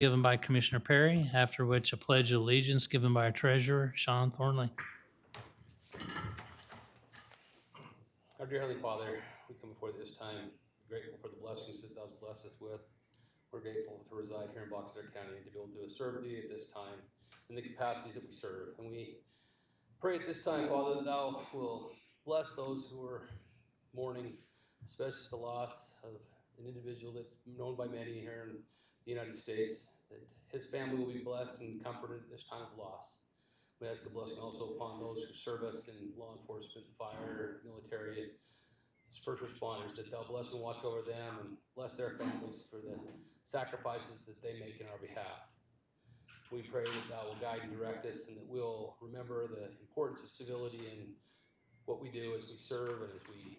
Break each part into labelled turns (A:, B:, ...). A: given by Commissioner Perry, after which a pledge of allegiance given by our treasurer, Sean Thornley.
B: Our dear Heavenly Father, we come before this time grateful for the blessings that Thou's blessed us with. We're grateful to reside here in Box Elder County and to be able to serve Thee at this time in the capacities that we serve. And we pray at this time, Father, that Thou will bless those who are mourning, especially the loss of an individual that's known by many here in the United States, that his family will be blessed and comforted at this time of loss. We ask a blessing also upon those who serve us in law enforcement, fire, military, and first responders, that they'll bless and watch over them and bless their families for the sacrifices that they make in our behalf. We pray that thou will guide and direct us and that we'll remember the importance of civility and what we do as we serve and as we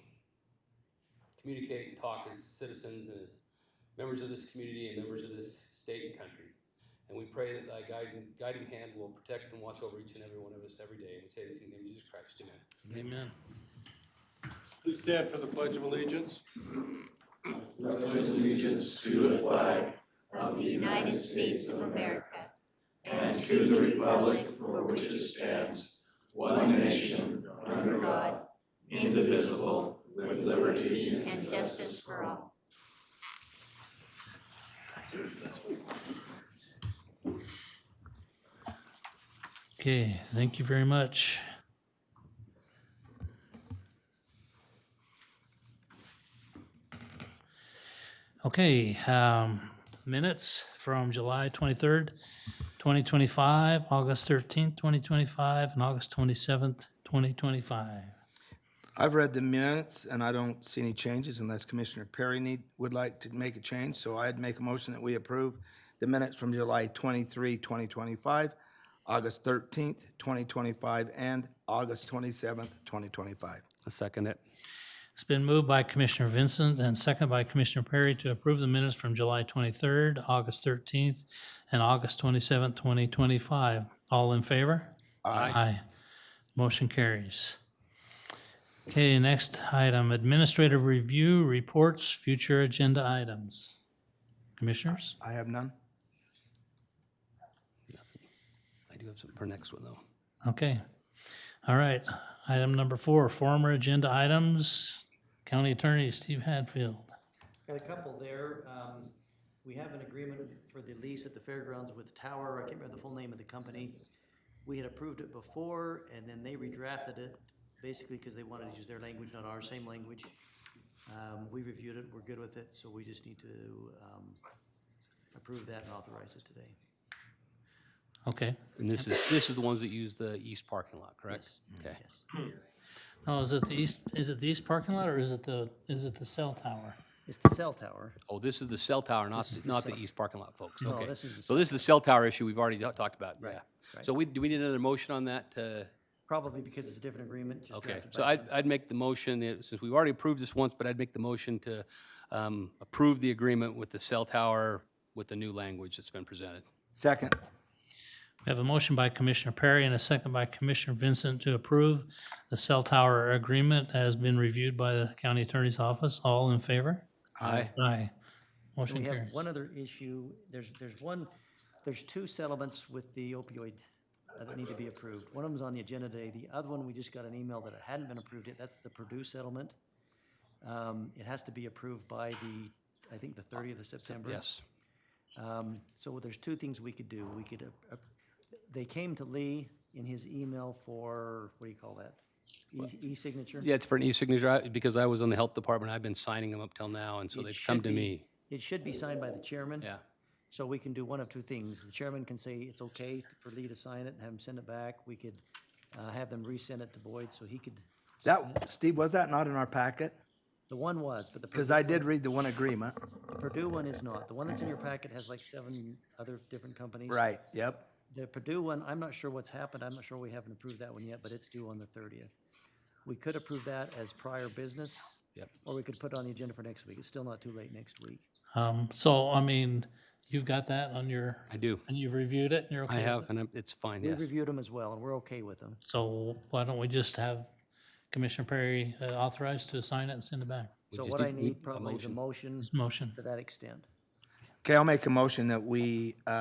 B: communicate and talk as citizens and as members of this community and members of this state and country. And we pray that thy guiding, guiding hand will protect and watch over each and every one of us every day. And we say this in the name of Jesus Christ. Amen.
A: Amen.
C: Please stand for the Pledge of Allegiance.
D: pledge allegiance to the flag of the United States of America and to the republic for which it stands, one nation, under God, indivisible, with liberty and justice for all.
A: Okay, thank you very much. Okay, um, minutes from July twenty-third, twenty twenty-five, August thirteenth, twenty twenty-five, and August twenty-seventh, twenty twenty-five.
E: I've read the minutes and I don't see any changes unless Commissioner Perry need, would like to make a change. So I'd make a motion that we approve the minutes from July 23, 2025, August 13th, 2025, and August 27th, 2025.
F: I second it.
A: It's been moved by Commissioner Vincent and second by Commissioner Perry to approve the minutes from July 23rd, August 13th, and August 27th, 2025. All in favor? Aye. Motion carries. Okay, next item, administrative review, reports, future agenda items. Commissioners?
E: I have none.
F: I do have something for next one, though.
A: Okay. All right. Item number four, former agenda items. County Attorney Steve Hadfield.
G: Got a couple there. Um, we have an agreement for the lease at the fairgrounds with Tower. I can't remember the full name of the company. We had approved it before and then they redrafted it basically because they wanted to use their language, not our same language. Um, we reviewed it, we're good with it, so we just need to, um, approve that and authorize it today.
A: Okay.
F: And this is, this is the ones that use the east parking lot, correct? Okay.
G: Yes.
A: Oh, is it the east, is it the east parking lot or is it the, is it the cell tower?
G: It's the cell tower.
F: Oh, this is the cell tower, not, not the east parking lot, folks.
G: No,
F: Okay.
G: this is the
F: So
G: cell
F: this is the cell tower issue we've already ta- talked about, yeah.
G: right.
F: So we, do we need another motion on that? uh,
G: Probably because it's a different agreement, just
F: Okay,
G: drafted
F: so
G: by-
F: I'd, I'd make the motion, uh, since we've already approved this once, but I'd make the motion to um, approve the agreement with the cell tower with the new language that's been presented.
E: Second.
A: We have a motion by Commissioner Perry and a second by Commissioner Vincent to approve the cell tower agreement has been reviewed by the county attorney's office. All in favor?
F: Aye.
A: Aye.
G: And
A: Motion
G: We
A: carries.
G: have one other issue. There's, there's one, there's two settlements with the opioid uh, that need to be approved. One of them's on the agenda today. The other one, we just got an email that it hadn't been approved yet. That's the Purdue settlement. Um, It has to be approved by the, I think, the 30th of September.
F: Yes.
G: Um, So there's two things we could do. We could, uh, uh, they came to Lee in his email for, what do you call that? E- E-signature?
F: Yeah, it's for an e-signature, I- because I was on the health department, I've been signing them up till now, and so
G: It
F: they've come
G: should
F: to
G: be-
F: me.
G: It should be signed by the chairman.
F: Yeah.
G: So we can do one of two things. The chairman can say it's okay for Lee to sign it and have him send it back. We could uh, have them resend it to Boyd so he could,
E: That, Steve, was that not in our packet?
G: the one was, but the
E: Because
G: Purdue
E: I did read the one agreement.
G: Purdue one is not. The one that's in your packet has like seven other different companies.
E: Right, yep.
G: The Purdue one, I'm not sure what's happened. I'm not sure we haven't approved that one yet, but it's due on the thirtieth. We could approve that as prior business.
F: Yep.
G: Or we could put it on the agenda for next week. It's still not too late next week.
A: Um, so, I mean, you've got that on your,
F: I do.
A: and you've reviewed it and you're okay?
F: I
A: with
F: have,
A: it?
F: and I'm- it's fine,
G: We
F: yes.
G: reviewed them as well and we're okay with them.
A: So why don't we just have Commissioner Perry uh, authorized to sign it and send it back?
G: So
F: just
G: what
F: need-
G: I
F: we-
G: need
F: a
G: probably is a motion
A: Motion.
G: to that extent.
E: Okay, I'll make a motion that we uh,